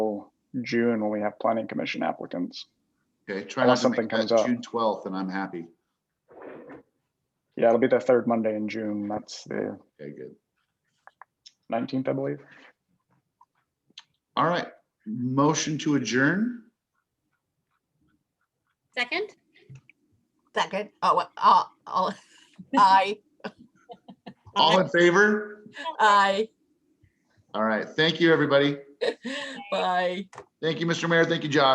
June when we have planning commission applicants. Okay, try not Unless to make something that comes up. June twelfth and I'm happy. Yeah, it'll be the third Monday in June. That's the Okay, good. nineteenth, I believe. All right, motion to adjourn. Second? Second, oh, uh, all, I, All in favor? I, All right, thank you, everybody. bye. Thank you, Mr. Mayor. Thank you, Josh.